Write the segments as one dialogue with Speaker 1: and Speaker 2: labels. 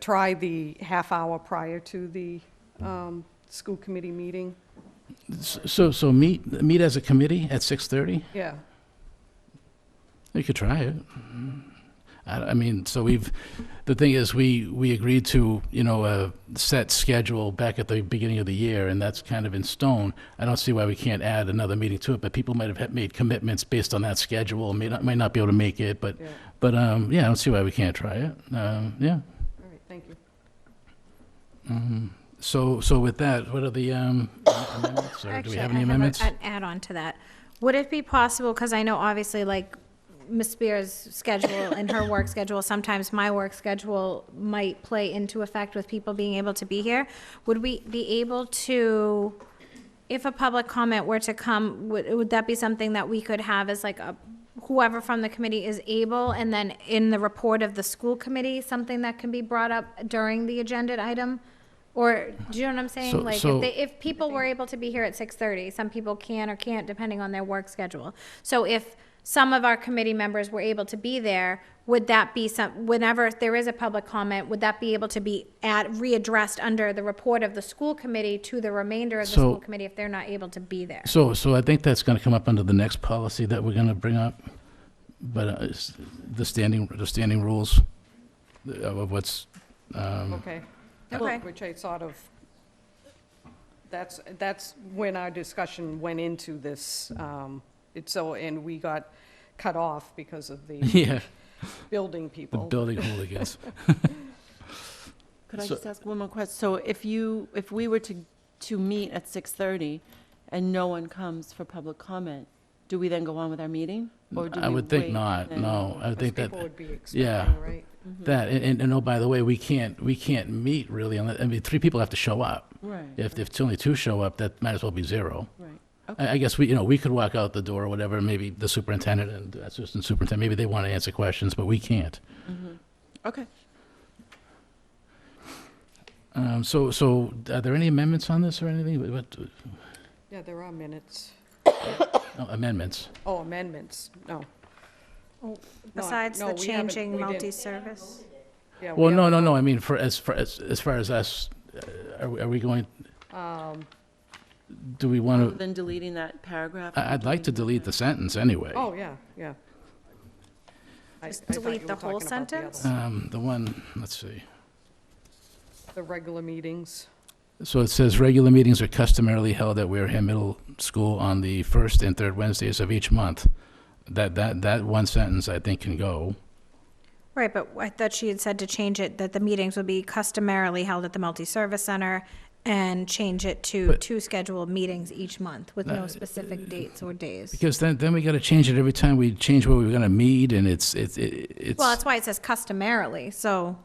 Speaker 1: try the half hour prior to the um, school committee meeting.
Speaker 2: So, so meet, meet as a committee at 6:30?
Speaker 1: Yeah,
Speaker 2: We could try it. I, I mean, so we've, the thing is, we, we agreed to, you know, a set schedule back at the beginning of the year, and that's kind of in stone. I don't see why we can't add another meeting to it, but people might have had- made commitments based on that schedule, may not, might not be able to make it, but,
Speaker 1: yeah.
Speaker 2: but, um, yeah, I don't see why we can't try it. Um, yeah.
Speaker 1: All right, thank you.
Speaker 2: Mhm. So, so with that, what are the, um, amendments, or do we
Speaker 3: Actually,
Speaker 2: have
Speaker 3: I
Speaker 2: any
Speaker 3: a-
Speaker 2: amendments?
Speaker 3: An add-on to that. Would it be possible, because I know obviously like Ms. Spear's schedule and her work schedule, sometimes my work schedule might play into effect with people being able to be here. Would we be able to, if a public comment were to come, would, would that be something that we could have as like a, whoever from the committee is able, and then in the report of the school committee, something that can be brought up during the agenda item? Or, do you know what I'm saying?
Speaker 2: So-
Speaker 3: Like,
Speaker 2: so-
Speaker 3: if they, if people were able to be here at six thirty, some people can or can't depending on their work schedule. So if some of our committee members were able to be there, would that be some, whenever there is a public comment, would that be able to be at, readdressed under the report of the school committee to the remainder of the
Speaker 2: So-
Speaker 3: school committee if they're not able to be there?
Speaker 2: So, so I think that's gonna come up under the next policy that we're gonna bring up, but uh, it's the standing, the standing rules of what's, um,
Speaker 1: Okay.
Speaker 3: Okay.
Speaker 1: Which I sort of, that's, that's when our discussion went into this, um, it's so, and we got cut off because of the
Speaker 2: yeah,
Speaker 1: building
Speaker 2: the
Speaker 1: people.
Speaker 2: building hooligans.
Speaker 4: Could I
Speaker 2: So-
Speaker 4: just ask one more question? So if you, if we were to, to meet at 6:30 and no one comes for public comment, do we then go on with our meeting? Or do
Speaker 2: I
Speaker 4: we
Speaker 2: would think
Speaker 4: wait
Speaker 2: not,
Speaker 4: and-
Speaker 2: no, I would think that,
Speaker 1: People would be
Speaker 2: yeah.
Speaker 1: expecting, right?
Speaker 2: that, and- and, and oh, by the way, we can't, we can't meet really, unless- I mean, three people have to show up.
Speaker 4: Right,
Speaker 2: If, if only two show up, that might as well be zero.
Speaker 4: right.
Speaker 2: I, I guess we, you know, we could walk out the door or whatever, maybe the superintendent and uh, assistant superintendent, maybe they wanna answer questions, but we can't.
Speaker 4: Okay.
Speaker 2: Um, so, so are there any amendments on this or anything? What- What,
Speaker 1: Yeah, there are minutes.
Speaker 2: no, amendments?
Speaker 1: Oh, amendments, no. Not-
Speaker 3: Oh, Besides
Speaker 1: no,
Speaker 3: the
Speaker 1: we haven't- we
Speaker 3: changing
Speaker 1: didn't-
Speaker 3: multi-service?
Speaker 1: yeah, we
Speaker 2: Well, no,
Speaker 1: haven't-
Speaker 2: no, no, I mean, for, as, for, as, as far as us, uh, are, we- are we going,
Speaker 1: um,
Speaker 2: do we
Speaker 4: Other
Speaker 2: want to,
Speaker 4: than deleting that paragraph?
Speaker 2: I, I'd like to delete the sentence anyway.
Speaker 1: Oh, yeah, yeah. I-
Speaker 3: Just
Speaker 1: I thought
Speaker 3: delete
Speaker 1: you were
Speaker 3: the whole
Speaker 1: talking about the other
Speaker 3: sentence?
Speaker 1: one.
Speaker 2: Um, the one, let's see.
Speaker 1: The regular meetings.
Speaker 2: So it says, "Regular meetings are customarily held at Wareham Middle School on the first and third Wednesdays of each month." That, that, that one sentence, I think, can go.
Speaker 3: Right, but I thought she had said to change it, that the meetings would be customarily held at the multi-service center and change it to
Speaker 2: But-
Speaker 3: two scheduled meetings each month with
Speaker 2: Uh,
Speaker 3: no specific dates or days.
Speaker 2: Because then, then we got to change it every time we change where we're going to meet, and it's, it's, it- it's.
Speaker 3: Well, that's why it says customarily, so,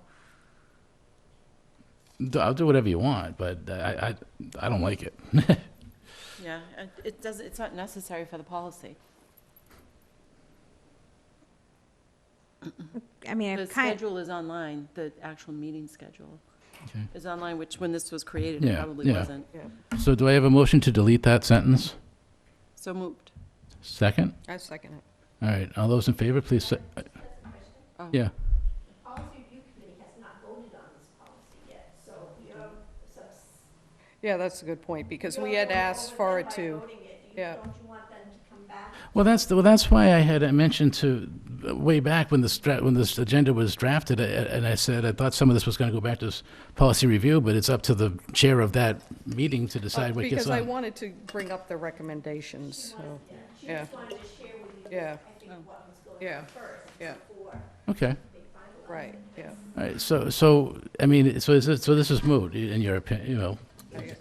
Speaker 2: D- I'll do whatever you want, but I, I, I don't like it.
Speaker 4: Yeah, and it doesn't, it's not necessary for the policy.
Speaker 3: I mean,
Speaker 4: The
Speaker 3: it kind
Speaker 4: schedule is online, the actual meeting schedule
Speaker 2: Okay.
Speaker 4: is online, which when this was created, it
Speaker 2: Yeah,
Speaker 4: probably
Speaker 2: yeah.
Speaker 4: wasn't.
Speaker 2: So do I have a motion to delete that sentence?
Speaker 4: So moved.
Speaker 2: Second?
Speaker 1: I second it.
Speaker 2: All right, all those in favor, please say,
Speaker 4: Oh.
Speaker 2: yeah.
Speaker 1: Yeah, that's a good point, because we had asked for it to. Yeah,
Speaker 2: Well, that's, the- well, that's why I had mentioned to, uh, way back when this, dra- when this agenda was drafted, a- a- and I said, I thought some of this was going to go back to s- policy review, but it's up to the chair of that meeting to decide what gets
Speaker 1: because I
Speaker 2: on.
Speaker 1: wanted to bring up the recommendations, so, yeah. Yeah. Yeah, yeah,
Speaker 2: Okay,
Speaker 1: right, yeah,
Speaker 2: all right, so, so, I mean, so is, it- so this is moot, i- in your opinion, you know?
Speaker 1: I- yeah.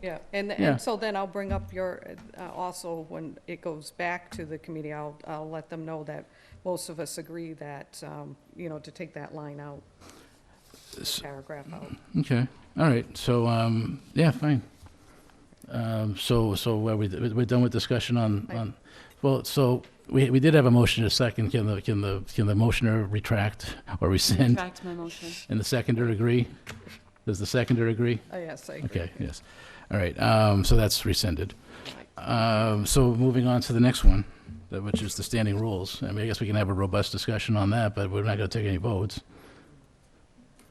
Speaker 1: Yeah, and,
Speaker 2: Yeah.
Speaker 1: and so then I'll bring up your, uh, also, when it goes back to the committee, I'll, I'll let them know that most of us agree that, um, you know, to take that line out,
Speaker 2: S- mm-hmm.
Speaker 1: paragraph out.
Speaker 2: Okay, all right, so, um, yeah, fine. Um, so, so are we, we're done with discussion on,
Speaker 1: Right.
Speaker 2: on, well, so, we, we did have a motion to second, can the, can the, can the motioner retract or rescind?
Speaker 4: Retract my motion.
Speaker 2: And the seconder agree? Does the seconder agree?
Speaker 1: Oh, yes, I agree.
Speaker 2: Okay, yes, all right, um, so that's rescinded. Um, so moving on to the next one, that- which is the standing rules. I mean, I guess we can have a robust discussion on that, but we're not gonna take any votes.